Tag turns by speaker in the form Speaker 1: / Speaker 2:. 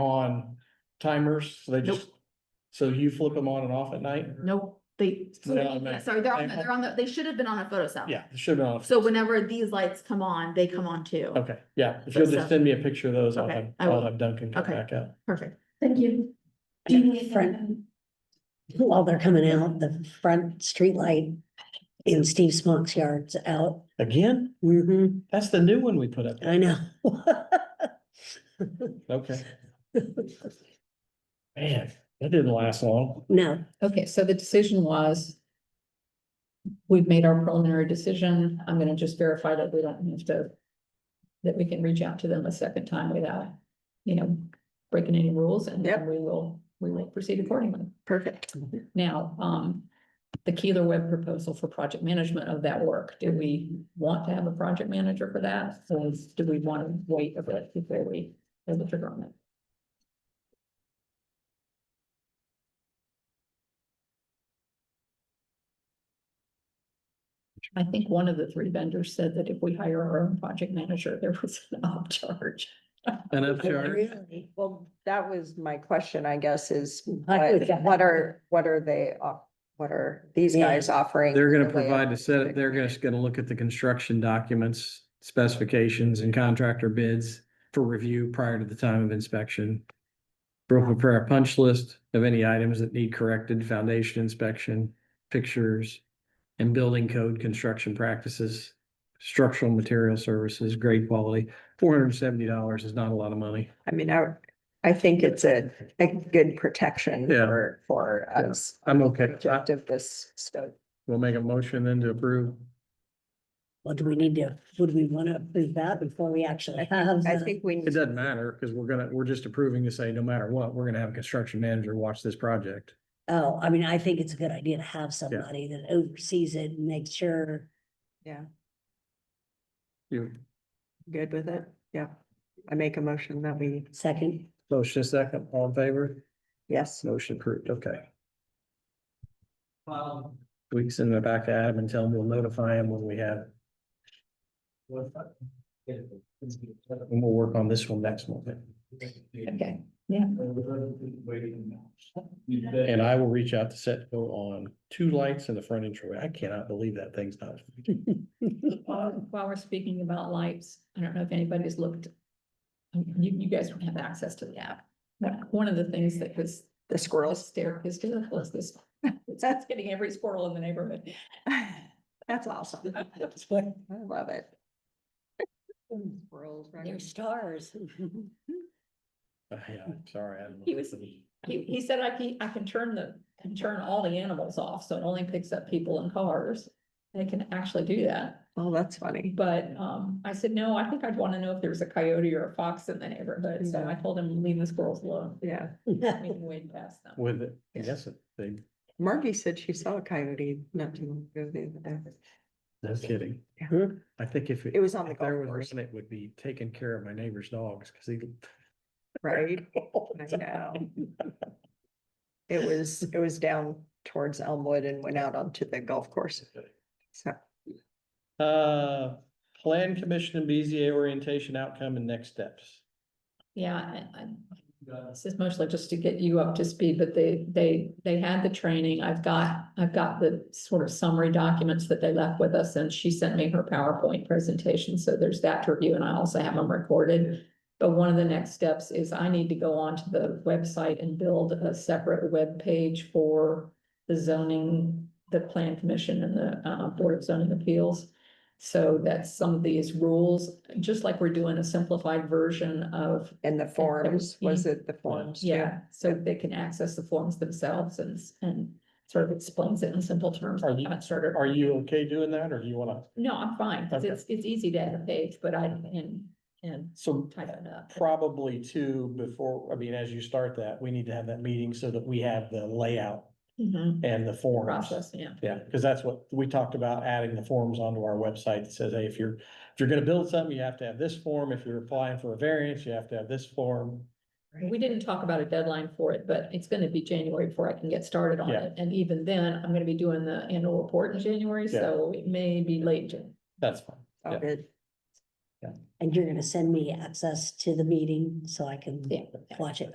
Speaker 1: on timers, so they just, so you flip them on and off at night?
Speaker 2: Nope, they,
Speaker 1: They're on there.
Speaker 2: sorry, they're on,
Speaker 1: They-
Speaker 2: they're on the, they should have been on a photo cell.
Speaker 1: Yeah, it should have been off.
Speaker 2: So whenever these lights come on, they come on too.
Speaker 1: Okay, yeah, if you'll just send me a picture of those, I'll
Speaker 2: Okay,
Speaker 1: have,
Speaker 2: I will.
Speaker 1: I'll have Duncan come
Speaker 2: Okay.
Speaker 1: back out.
Speaker 2: Perfect.
Speaker 3: Thank you.
Speaker 4: Do you need front, while they're coming out, the front street light in Steve Smock's yard's out?
Speaker 1: Again,
Speaker 4: Mm-hmm,
Speaker 1: that's the new one we put up.
Speaker 2: Uh,
Speaker 4: I know.
Speaker 1: Okay, man, that didn't last long.
Speaker 4: No,
Speaker 5: Okay, so the decision was. We've made our preliminary decision. I'm gonna just verify that we don't have to. That we can reach out to them a second time without, you know, breaking any rules and then
Speaker 2: Yep.
Speaker 5: we will, we will proceed accordingly.
Speaker 2: Perfect.
Speaker 5: Now, um, the Keeler Webb proposal for project management of that work, do we want to have a project manager for that? Or do we want to wait a bit before we pull the trigger on it? I think one of the three vendors said that if we hire our own project manager, there was an upcharge.
Speaker 1: And I'm
Speaker 4: really.
Speaker 6: Well, that was my question, I guess, is
Speaker 4: Like with
Speaker 6: what,
Speaker 4: that.
Speaker 6: what are, what are they, off- what are these
Speaker 4: Yeah.
Speaker 6: guys offering?
Speaker 7: They're gonna
Speaker 6: for the-
Speaker 7: provide a set, they're just gonna look at the construction documents, specifications and contractor bids for review prior to the time of inspection. We'll prepare a punch list of any items that need corrected, foundation inspection, pictures, and building code construction practices, structural material services, grade quality. Four hundred and seventy dollars is not a lot of money.
Speaker 6: I mean, I, I think it's a, a good protection
Speaker 7: Yeah.
Speaker 6: for, for
Speaker 7: Yeah.
Speaker 6: us.
Speaker 7: I'm okay. I-
Speaker 6: Objective this stuff.
Speaker 7: We'll make a motion then to approve.
Speaker 4: Well, do we need to, would we want to approve that before we actually have?
Speaker 6: I
Speaker 4: the-
Speaker 6: think we,
Speaker 7: It
Speaker 6: need-
Speaker 7: doesn't matter, because we're gonna, we're just approving to say, no matter what, we're gonna have a construction manager watch this project.
Speaker 4: Oh, I mean, I think it's a good idea to have somebody that oversees it and makes sure.
Speaker 7: You,
Speaker 6: good with it, yeah. I make a motion that we,
Speaker 4: Second,
Speaker 7: motion second, all in favor?
Speaker 6: yes,
Speaker 7: Motion approved, okay. We can send it back to Adam and tell him we'll notify him when we have. And we'll work on this one next month.
Speaker 5: Okay,
Speaker 1: And I will reach out to Setco on two lights in the front entryway. I cannot believe that thing's not.
Speaker 5: While while we're speaking about lights, I don't know if anybody's looked. um, You, you guys don't have access to the app. One- One of the things that was
Speaker 6: the squirrels.
Speaker 5: hysterical is this, that's getting every squirrel in the neighborhood.
Speaker 6: That's awesome. I love it. Squirrels, right?
Speaker 4: they're stars.
Speaker 1: Yeah, sorry. I don't know.
Speaker 5: He was- He, he said I can, I can turn the, can turn all the animals off, so it only picks up people and cars. They can actually do that,
Speaker 6: Oh, that's funny.
Speaker 5: but, um, I said, no, I think I'd wanna know if there was a coyote or a fox in the neighborhood, so I told him, leave the squirrels alone.
Speaker 6: Yeah.
Speaker 5: We can wade past them.
Speaker 1: With it, yes, they,
Speaker 6: Margie said she saw a coyote not too long ago the other day.
Speaker 7: No kidding.
Speaker 6: Yeah.
Speaker 7: I think if.
Speaker 6: It was on the
Speaker 7: if there
Speaker 6: golf
Speaker 7: was
Speaker 6: course,
Speaker 7: one, It would be taking care of my neighbor's dogs, because he.
Speaker 6: right? I know. It was, it was down towards Elmwood and went out onto the golf course. So,
Speaker 1: Uh, Plan Commission and BZA orientation outcome and next steps.
Speaker 5: Yeah, I, I, this is mostly just to get you up to speed, but they, they, they had the training. I've got, I've got the sort of summary documents that they left with us and she sent me her PowerPoint presentation. So there's that to review and I also have them recorded. But one of the next steps is I need to go onto the website and build a separate web page for the zoning, the plan commission and the, uh, board of zoning appeals. So that some of these rules, just like we're doing a simplified version of
Speaker 6: and the forms, was E. it the forms? too?
Speaker 5: yeah, so they can access the forms themselves and, s- and sort of explains it in simple terms.
Speaker 1: Are
Speaker 5: I
Speaker 1: you-
Speaker 5: haven't started,
Speaker 1: Are you okay doing that or do you wanna?
Speaker 5: no, I'm fine, 'cause
Speaker 1: Okay.
Speaker 5: it's, it's easy to add a page, but I, and, and
Speaker 1: So
Speaker 5: type it up.
Speaker 1: probably two before, I mean, as you start that, we need to have that meeting so that we have the layout
Speaker 5: Mhm.
Speaker 1: and the forms.
Speaker 5: Process, yeah.
Speaker 1: Yeah, because that's what we talked about, adding the forms onto our website that says, hey, if you're, if you're gonna build something, you have to have this form. If you're applying for a variance, you have to have this form.
Speaker 5: We didn't talk about a deadline for it, but it's gonna be January before I can get started on
Speaker 1: Yeah.
Speaker 5: it. And even then, I'm gonna be doing the annual report in January,
Speaker 1: Yeah.
Speaker 5: so it may be late. Jan-
Speaker 1: That's fine.
Speaker 6: Oh,
Speaker 1: Yeah.
Speaker 6: good.
Speaker 4: And you're gonna send me access to the meeting so I can
Speaker 5: Yeah.
Speaker 4: watch it.